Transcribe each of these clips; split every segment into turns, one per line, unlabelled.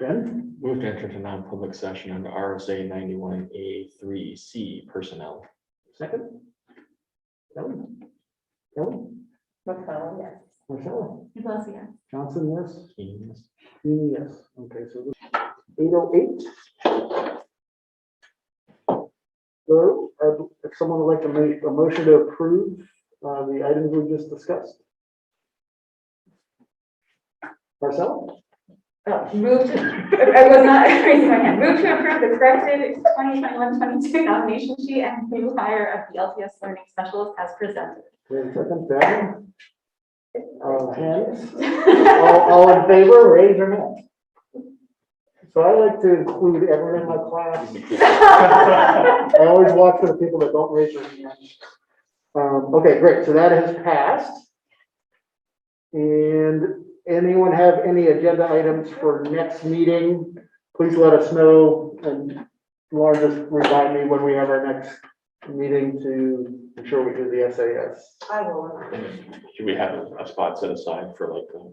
Ben?
Move to enter to non-public session under RSA ninety-one A three C personnel.
Second? Kelly? Kelly?
McCollum, yes.
Marcella?
Plus, yes.
Johnson, yes?
Keens.
Feeny, yes. Okay, so eight oh eight. So, uh, if someone would like to make a motion to approve, uh, the items we just discussed. Marcel?
Oh, Move to, I was not raising my hand. Move to approve the corrected 2021-22 nomination sheet and new hire of the LTS Learning Specialist as presented.
we have a Second, Ben? Uh, hands? All, all in favor, raise your hand. So I like to include everyone in my class. I always watch for the people that don't raise their hand. Um, okay, great, so that has passed. And anyone have any agenda items for next meeting? Please let us know, and Lauren just remind me when we have our next meeting to ensure we do the SAS.
I will.
Should we have a- a spot set aside for like um,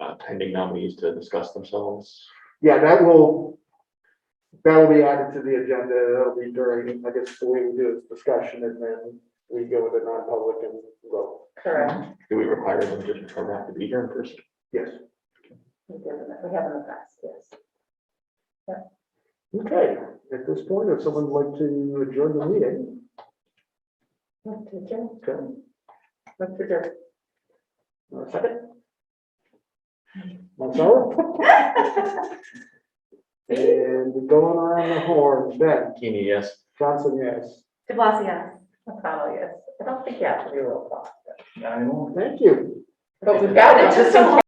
uh, pending nominees to discuss themselves?
Yeah, that will, that will be added to the agenda, that'll be during, I guess, the way we do is discussion, and then we go with a non-public and vote.
Correct.
Do we require them just to have to be here in person?
Yes.
We have an address, yes.
Okay, at this point, if someone would like to adjourn the meeting,
Mr. Jim,
okay,
Mr. Dirk.
uh, second. Marcelo, and going around the horn, Ben,
Keeny, yes.
Johnson, yes.
DeBlasio, yes. McConnell, yes. I don't think you have to do roll call.
Thank you.
But we've got it just so